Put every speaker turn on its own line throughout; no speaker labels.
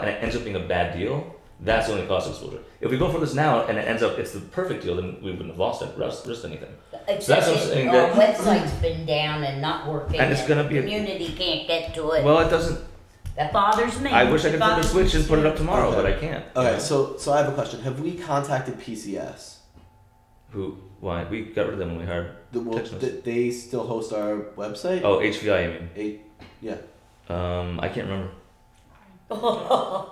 and it ends up being a bad deal, that's only cost exposure. If we go for this now and it ends up it's the perfect deal, then we wouldn't have lost it, risked, risked anything.
Except
what I'm
it-
saying,
Our
that-
website's been down and not working.
And it's gonna be a-
Community can't get to it.
Well, it doesn't.
That bothers me.
I wish I
It
could flip a
bothers
switch
me
and put it up
too.
tomorrow, but I
Okay.
can't.
All
Yeah.
right, so so I have a question. Have we contacted PCS?
Who? Why? We got rid of them when we hired.
The, well,
Texas.
th- they still host our website.
Oh, HVI. I mean,
Eight,
um, I can't remember.
I don't know.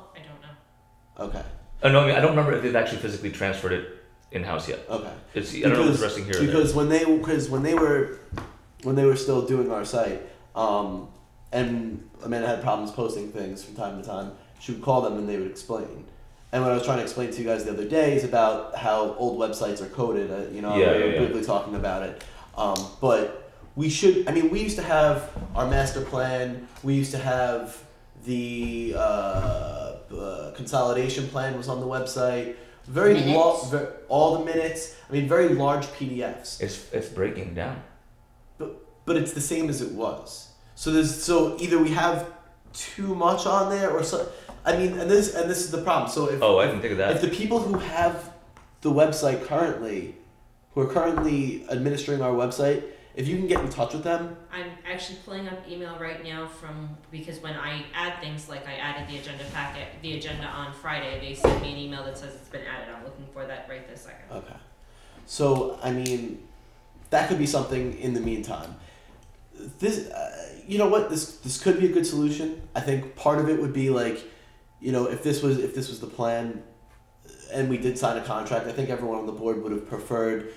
okay,
Oh, no, I mean, I don't remember if they've actually physically transferred it in house yet.
okay.
It's I don't know if it's resting here. Or there.
because when they because when they were when they were still doing our site, um, and Amanda had problems posting things from time to time. She would call them and they would explain. And what I was trying to explain to you guys the other day is about how old websites are coded. Uh, you know,
Yeah,
we were
yeah, yeah.
briefly talking about it. Um, but we should. I mean, we used to have our master plan. We used to have the uh, uh, consolidation plan was on the website. Very lo-
Minutes.
ver- all the minutes. I mean, very large PDFs.
It's it's breaking down.
But it's the same as it was. So there's so either we have too much on there or so. I mean, and this and this is the problem. So if
Oh, I didn't think of that.
if the people who have the website currently, who are currently administering our website, if you can get in touch with them,
I'm actually pulling up email right now from because when I add things like I added the agenda packet, the agenda on Friday, they sent me an email that says it's been added. I'm looking for that right this second.
okay. So I mean, that could be something in the meantime. This, uh, you know what? This this could be a good solution. I think part of it would be like, you know, if this was if this was the plan, uh, and we did sign a contract, I think everyone on the board would have preferred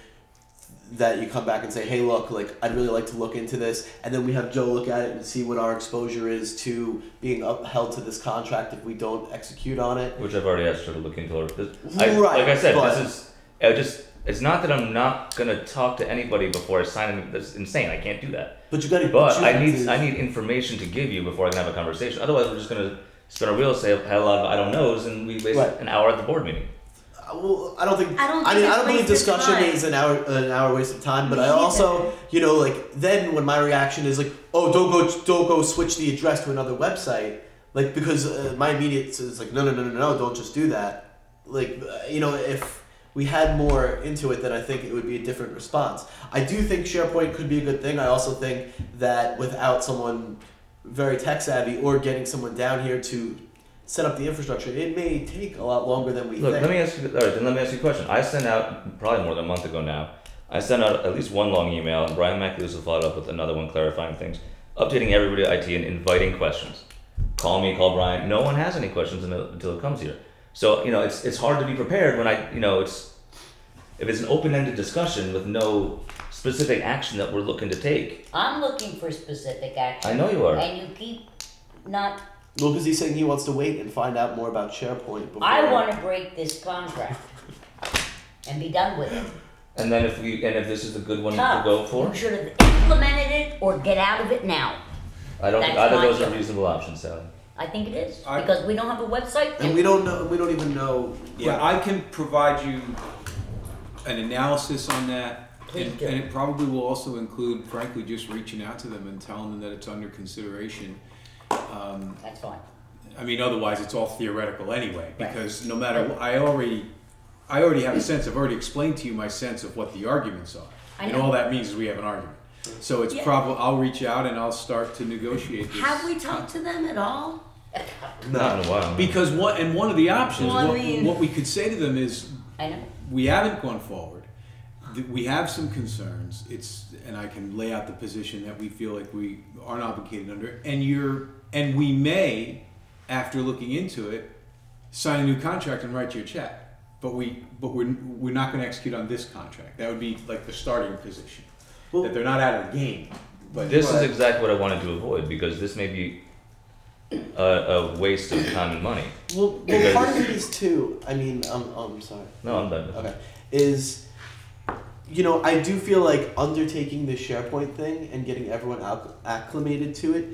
that you come back and say, "Hey, look, like I'd really like to look into this," and then we have Joe look at it and see what our exposure is to being upheld to this contract if we don't execute on it.
Which I've already asked her to look into. Or this, I,
Right,
like I said,
but-
this is. I just. It's not that I'm not gonna talk to anybody before I sign. Anything. That's insane. I can't do that.
But you got to.
But I need I need information to give you before I can have a conversation. Otherwise, we're just gonna spin a wheel, say a hell lot of I don't knows, and we waste
Right.
an hour at the board meeting.
Uh, Well, I don't think.
I don't
I
think
mean, I
it's
don't believe
waste of
discussion
time.
is an hour an hour waste of time. But
Me
I also,
either.
you know, like then when my reaction is like, oh, don't go, don't go, switch the address to another website, like because uh, my immediate is like, no, no, no, no, no, don't just do that. Like, uh, you know, if we had more into it, then I think it would be a different response. I do think SharePoint could be a good thing. I also think that without someone very tech savvy or getting someone down here to set up the infrastructure, it may take a lot longer than we
Look,
think.
let me ask you. All right, then let me ask you a question. I sent out probably more than a month ago now. I sent out at least one long email, and Brian McAleese followed up with another one clarifying things, updating everybody at IT, and inviting questions. Call me, call Brian. No one has any questions until until it comes here. So you know, it's it's hard to be prepared when I you know it's if it's an open ended discussion with no specific action that we're looking to take.
I'm looking for specific action.
I know you are.
And you keep not,
Well, because he's saying he wants to wait and find out more about SharePoint before.
I wanna break this contract and be done with it.
And then if we and if this is the good one to
Tough.
go for,
You should have implemented it or get out of it now.
I don't think
That's
either of
my
those are
view.
reasonable options, Sally.
I think it is,
I-
because we don't have a website.
And we don't know. We don't even know.
Yeah, I can provide you an analysis on that.
Please
And,
do.
and it probably will also include, frankly, just reaching out to them and telling them that it's under consideration. Um,
That's fine.
I mean, otherwise, it's all theoretical anyway.
Right.
Because no matter, wh- I already, I already have a sense. I've already explained to you my sense of what the arguments are,
I
and
know.
all that means is we have an argument. So it's
Yeah.
probably I'll reach out and I'll start to negotiate. This.
Have we talked to them at all?
Not in a while.
Because what and one of the options,
Well, I
what,
mean-
what we could say to them is,
I know.
we haven't gone forward. Th- We have some concerns. It's and I can lay out the position that we feel like we aren't obligated under, and you're and we may, after looking into it, sign a new contract and write you a check. But we but we're we're not going to execute on this contract. That would be like the starting position. that they're not out of the game. But
This is exactly what I wanted to avoid because this may be a, a waste of time and money.
Well, well
Because-
part of it is too. I mean, um, um, I'm sorry.
No, I'm done. with it.
Okay, is you know I do feel like undertaking the SharePoint thing and getting everyone acc- acclimated to it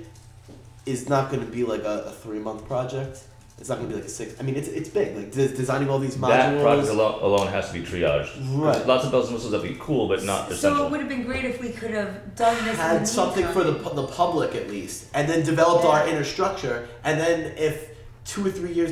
is not going to be like a, a three month project. It's not going to be like a six. I mean, it's it's big. Like des- designing all these modules.
That product alone, alone has to be triaged.
Right.
There's lots of bells and whistles that'd be cool, but not
So it
essential.
would have been great if we could have done this. in the
had something for the,
meantime.
pu- the public at least, and then developed our inner structure, and then if two or three years